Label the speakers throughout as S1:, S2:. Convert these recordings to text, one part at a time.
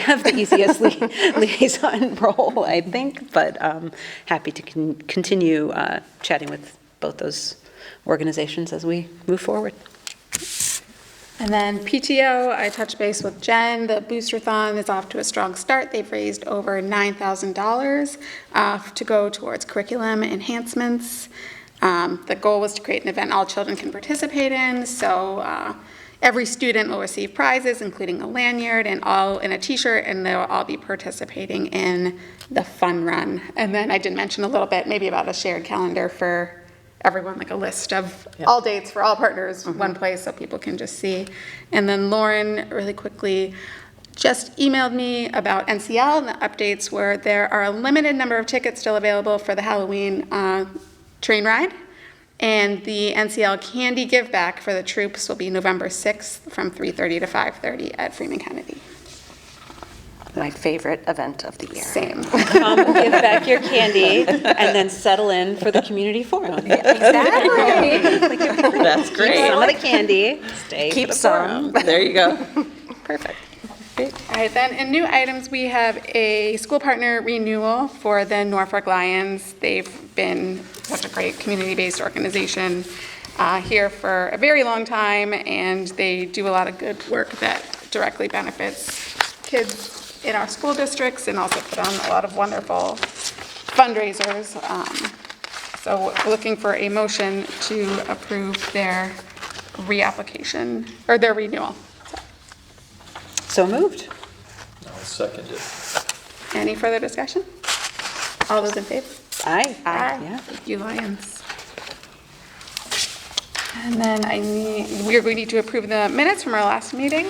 S1: have the easiest li- liaison role, I think, but um, happy to con- continue uh, chatting with both those organizations as we move forward.
S2: And then PTO, I touched base with Jen, the Boosterthon is off to a strong start. They've raised over $9,000 uh, to go towards curriculum enhancements. Um, The goal was to create an event all children can participate in, so uh, every student will receive prizes, including a lanyard and all, and a t-shirt, and they'll all be participating in the fun run. And then I did mention a little bit, maybe about a shared calendar for everyone like a list of all dates for all partners, one place so people can just see. And then Lauren, really quickly, just emailed me about NCL and the updates where there are a limited number of tickets still available for the Halloween uh, train ride. And the NCL Candy Give Back for the troops will be November 6th from 3:30 to 5:30 at Freeman Kennedy.
S3: My favorite event of the year.
S2: Same.
S1: Come, um, give back your candy, and then settle in for the community forum.
S2: Exactly.
S4: That's
S1: Keep some of
S4: great.
S1: the candy, stay for
S4: Keep
S1: the forum.
S4: some. There you go.
S2: Perfect. All right, then, in new items, we have a school partner renewal for the Norfolk Lions. They've been such a great community-based organization uh, here for a very long time, and they do a lot of good work that directly benefits kids in our school districts and also put on a lot of wonderful fundraisers. Um, So we're looking for a motion to approve their reapplication, or their renewal.
S1: So moved.
S5: I'll second it.
S2: Any further discussion? All those in favor?
S1: Aye. Yeah.
S2: Thank you, Lyons. And then I need, we are going to need to approve the minutes from our last meeting.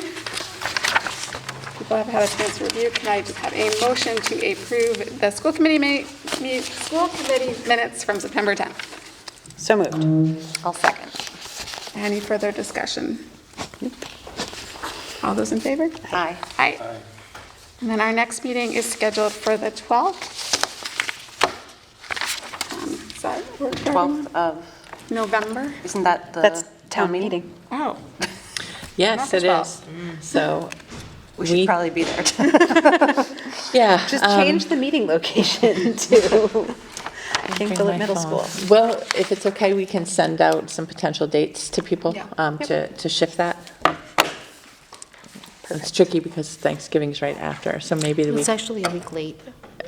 S2: People have had a chance to review. Can I just have a motion to approve the school committee ma, me, school committee minutes from September 10th?
S1: So moved.
S3: I'll second.
S2: Any further discussion? All those in favor?
S3: Aye.
S2: Aye. And then our next meeting is scheduled for the 12th. Um, Sorry, we're starting
S3: 12th of,
S2: November.
S3: isn't that the?
S1: That's town meeting.
S2: Oh,
S4: Yes, it
S2: Not
S4: is. So,
S3: We
S4: We-
S3: should probably be there.
S4: yeah.
S1: Just
S4: um,
S1: change the meeting location to Kingphilip Middle School.
S4: Well, if it's okay, we can send out some potential dates to people
S2: Yeah.
S4: um, to, to shift that. It's tricky because Thanksgiving's right after, so maybe the week,
S6: It's actually a week late.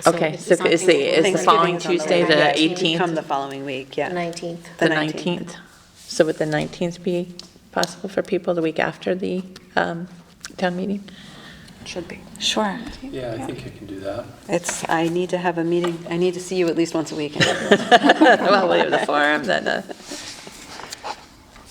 S4: okay, so is the, is the following Tuesday, the
S1: Yeah, you Come
S4: 18th,
S1: the following week, yeah.
S6: 19th.
S4: the
S1: the 19th.
S4: 19th? So would the 19th be possible for people the week after the um, town meeting?
S3: Should be.
S1: Sure.
S5: Yeah, I think I can do that.
S1: It's, I need to have a meeting, I need to see you at least once a week.
S4: Well, we have the forum, then, uh,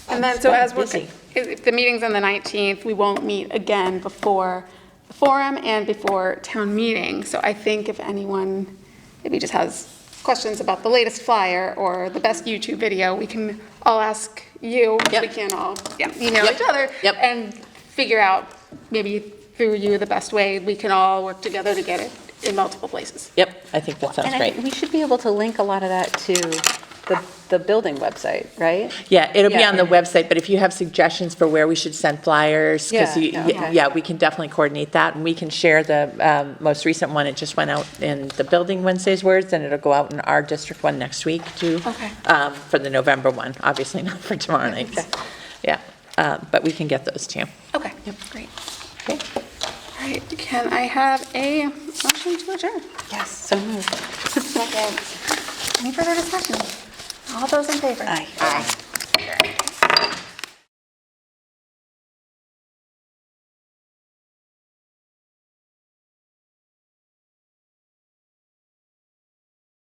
S2: and then, so as we're,
S4: Busy.
S2: if if the meeting's on the 19th, we won't meet again before the forum and before town meeting. So I think if anyone maybe just has questions about the latest flyer or the best YouTube video, we can all ask you.
S4: Yep.
S2: We can all yeah, email
S4: Yep.
S2: each other.
S4: Yep.
S2: And figure out, maybe through you, the best way, we can all work together to get it in multiple places.
S4: yep, I think that sounds
S1: And I
S4: great.
S1: think we should be able to link a lot of that to the, the building website, right?
S4: Yeah, it'll be
S1: Yeah.
S4: on the website, but if you have suggestions for where we should send flyers, because,
S1: Yeah, yeah, okay.
S4: yeah, we can definitely coordinate that, and we can share the um, most recent one, it just went out in the Building Wednesday's words, and it'll go out in our district one next week, too.
S2: Okay.
S4: um, For the November one, obviously not for tomorrow night. Yeah, uh, but we can get those, too.
S2: Okay, great.
S4: Okay.
S2: All right, can I have a motion to adjourn?
S1: Yes, so moved.
S2: Any further discussion? All those in favor?
S1: Aye.
S2: Aye.